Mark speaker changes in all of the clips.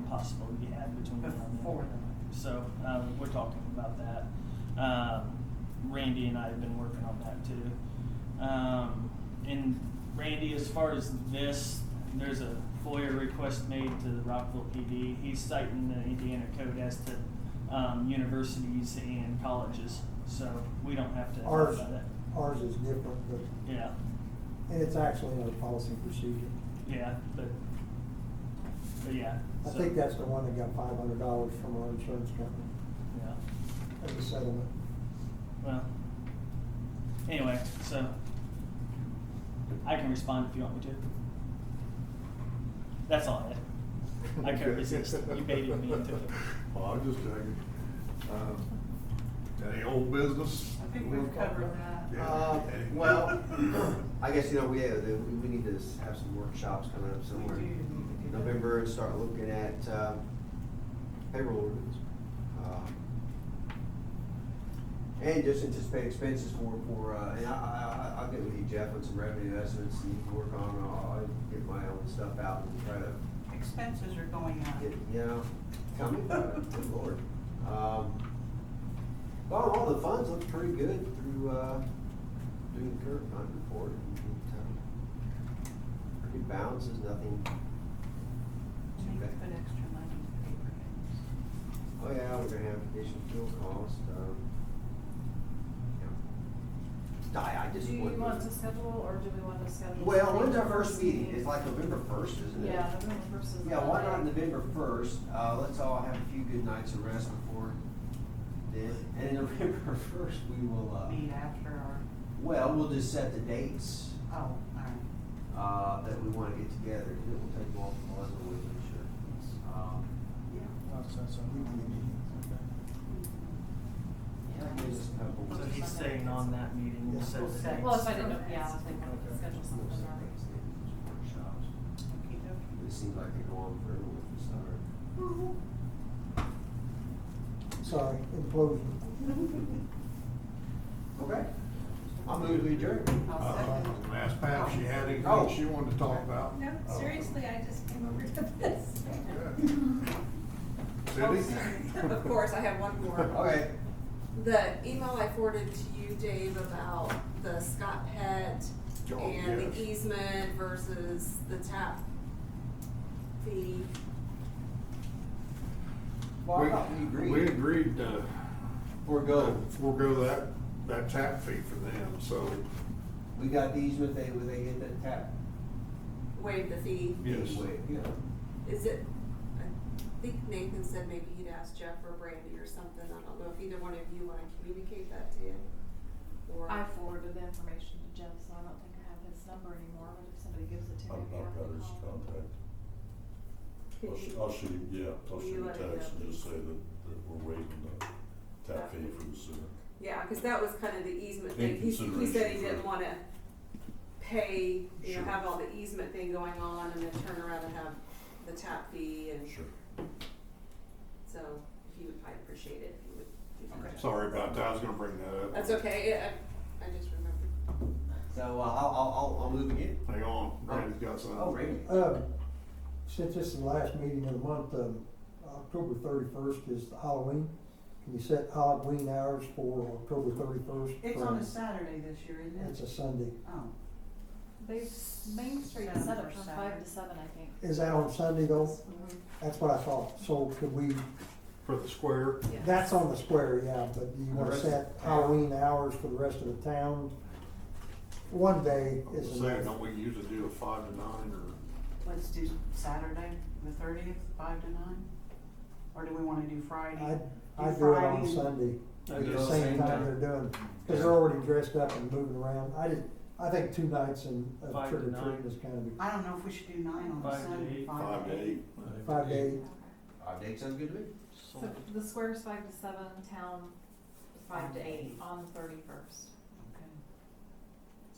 Speaker 1: possible you have between now and then.
Speaker 2: Before the-
Speaker 1: So, uh, we're talking about that. Um, Randy and I have been working on that too. Um, and Randy, as far as this, there's a FOIA request made to the Rockville PD. He's citing the Indiana code as to, um, universities and colleges, so we don't have to.
Speaker 3: Ours,
Speaker 1: about that.
Speaker 3: ours is different, but,
Speaker 1: Yeah,
Speaker 3: and it's actually in our policy and procedure.
Speaker 1: yeah, but, but yeah.
Speaker 3: I
Speaker 1: so-
Speaker 3: think that's the one that got five hundred dollars from our insurance company
Speaker 1: Yeah,
Speaker 3: as a settlement.
Speaker 1: well, anyway, so I can respond if you want me to. That's all I had. I couldn't
Speaker 4: Okay.
Speaker 1: resist. You baited me into it.
Speaker 4: Well, Oh, I'm just joking. Um, Any old business?
Speaker 2: I think we've covered that.
Speaker 4: Yeah.
Speaker 5: Uh, Well, I guess, you know, we, uh, we we need to s- have some workshops coming up
Speaker 2: We do
Speaker 5: somewhere.
Speaker 2: need to
Speaker 5: in
Speaker 2: do that.
Speaker 5: November and start looking at uh, payroll ordinance. Um, And just anticipate expenses for, for, uh, and I, I, I- I'll get with you, Jeff, on some revenue estimates and you can work on, uh, I'll get my own stuff out and try to
Speaker 2: Expenses are going up.
Speaker 5: it, you know, tell me about it, good lord. Um, But all the funds look pretty good through, uh, doing the current fund report. It, um, Pretty balances, nothing,
Speaker 2: So you could put extra money in paper bags.
Speaker 5: oh yeah, we're gonna have additional fuel cost, um. yeah. I, I just.
Speaker 6: Do you
Speaker 5: wouldn't-
Speaker 6: want to schedule, or do we want to schedule?
Speaker 5: Well,
Speaker 6: something
Speaker 5: when's our
Speaker 6: for
Speaker 5: first meeting?
Speaker 6: meeting?
Speaker 5: It's like November first, isn't it?
Speaker 6: Yeah, November first is.
Speaker 5: Yeah, why not
Speaker 6: Monday.
Speaker 5: November first? Uh, let's all have a few good nights of rest before then. And then November first, we will, uh,
Speaker 2: Meet after our,
Speaker 5: well, we'll just set the dates,
Speaker 2: oh, all right.
Speaker 5: uh, that we wanna get together. It will take multiple hours, I'm sure. Um, Yeah,
Speaker 1: Oh, so- so we can meet. Okay.
Speaker 5: that gives us a couple.
Speaker 1: So he's staying on that meeting, we'll set the dates.
Speaker 6: Well, if I didn't, yeah, I think we
Speaker 1: Okay.
Speaker 6: could schedule something. already.
Speaker 5: Workshops.
Speaker 2: Okey-dokey.
Speaker 5: It seems like they go on forever with this, summer.
Speaker 3: Sorry, implosion.
Speaker 5: Okay. I'll move to adjourn.
Speaker 2: I'll
Speaker 4: Uh,
Speaker 2: second.
Speaker 4: Asked Pam, she had
Speaker 5: Oh.
Speaker 4: anything she wanted to talk about.
Speaker 7: No,
Speaker 4: Oh.
Speaker 7: seriously, I just came over to this.
Speaker 4: Cindy?
Speaker 8: Of course, I have one more.
Speaker 5: Okay.
Speaker 8: The email I forwarded to you, Dave, about the Scott Pet
Speaker 4: Oh,
Speaker 8: and
Speaker 4: yes.
Speaker 8: the easement versus the tap fee.
Speaker 5: Well, I thought we
Speaker 4: We, we
Speaker 5: agreed.
Speaker 4: agreed to
Speaker 5: Forego.
Speaker 4: forego that, that tap fee for them, so,
Speaker 5: We got the easement, they, would they get that tap?
Speaker 8: Waive the fee.
Speaker 4: yes.
Speaker 5: Anyway, you know.
Speaker 8: Is it, I think Nathan said maybe he'd ask Jeff or Brandy or something. I don't know if either one of you want to communicate that to him. Or,
Speaker 6: I forwarded the information to Jeff, so I don't think I have his number anymore, but if somebody gives it to me.
Speaker 9: I've
Speaker 6: I
Speaker 9: not
Speaker 6: can
Speaker 9: got his
Speaker 6: call him.
Speaker 9: contact.
Speaker 8: could
Speaker 9: I'll, sh-
Speaker 8: you-
Speaker 9: I'll shoot him, yeah, I'll
Speaker 8: Will you
Speaker 9: shoot him a
Speaker 8: let me
Speaker 9: text
Speaker 8: know?
Speaker 9: and just say that, that we're waiving the tap fee for the sewer.
Speaker 8: Yeah, because that was kind of the easement
Speaker 9: In
Speaker 8: thing. He, he said he
Speaker 9: consideration
Speaker 8: didn't
Speaker 9: for-
Speaker 8: want to pay, you know,
Speaker 9: Sure.
Speaker 8: have all the easement thing going on and then turn around and have the tap fee and
Speaker 9: Sure.
Speaker 8: so he would probably appreciate it if you would do that.
Speaker 4: Sorry about that, I was gonna bring that up.
Speaker 8: That's okay. Yeah, I, I just remembered.
Speaker 5: So, uh, I'll, I'll, I'll, I'll move again.
Speaker 4: Hang on, Randy's got something.
Speaker 5: Oh, Randy.
Speaker 3: Uh, since this is the last meeting of the month, um, October thirty-first is Halloween. Can you set Halloween hours for October thirty-first?
Speaker 2: It's on a Saturday this year, isn't it?
Speaker 3: It's a Sunday.
Speaker 2: Oh,
Speaker 6: They've, Main Street is set up from five to seven, I think.
Speaker 3: Is that on Sunday though? That's what I thought. So could we,
Speaker 4: For the square,
Speaker 8: Yeah.
Speaker 3: that's on the square, yeah, but do you want to
Speaker 5: The rest of
Speaker 3: set
Speaker 5: the town.
Speaker 3: Halloween hours for the rest of the town? One day
Speaker 4: I'm
Speaker 3: is
Speaker 4: saying,
Speaker 3: enough.
Speaker 4: don't we usually do a five to nine or?
Speaker 2: let's do Saturday, the thirtieth, five to nine? Or do we wanna do Friday?
Speaker 3: I'd, I'd do it on
Speaker 2: Friday.
Speaker 3: Sunday,
Speaker 5: Do
Speaker 3: at
Speaker 5: it
Speaker 3: the same time they're doing, because they're already dressed up and moving around. I just, I think two nights and
Speaker 1: Five to
Speaker 3: trick or treating
Speaker 1: nine.
Speaker 3: is kind
Speaker 2: I don't know if we should do nine on
Speaker 1: Five
Speaker 2: a
Speaker 1: to
Speaker 2: Sunday.
Speaker 1: eight.
Speaker 9: Five to eight.
Speaker 3: of five to eight.
Speaker 5: Five days sounds good to me.
Speaker 6: So the square's five to seven, town is five to eight on the thirty-first.
Speaker 2: Okay.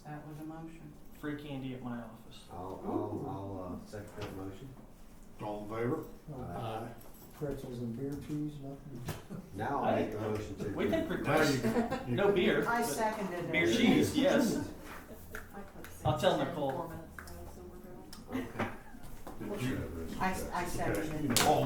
Speaker 2: That was a motion.
Speaker 1: Free candy at my office.
Speaker 5: I'll, I'll, I'll, uh, second that motion.
Speaker 4: All in favor?
Speaker 3: Uh,
Speaker 5: Aye.
Speaker 3: Pretzels and beer cheese, nothing.
Speaker 5: Now I'll make the motion to.
Speaker 1: We can
Speaker 4: Now
Speaker 1: request,
Speaker 4: you can- you
Speaker 1: no beer,
Speaker 2: I
Speaker 1: but
Speaker 2: seconded it.
Speaker 1: beer cheese, yes. I'll tell Nicole.
Speaker 6: Four minutes, so we're good.
Speaker 5: Okay.
Speaker 9: Did you have this?
Speaker 2: I, I seconded it.
Speaker 4: All in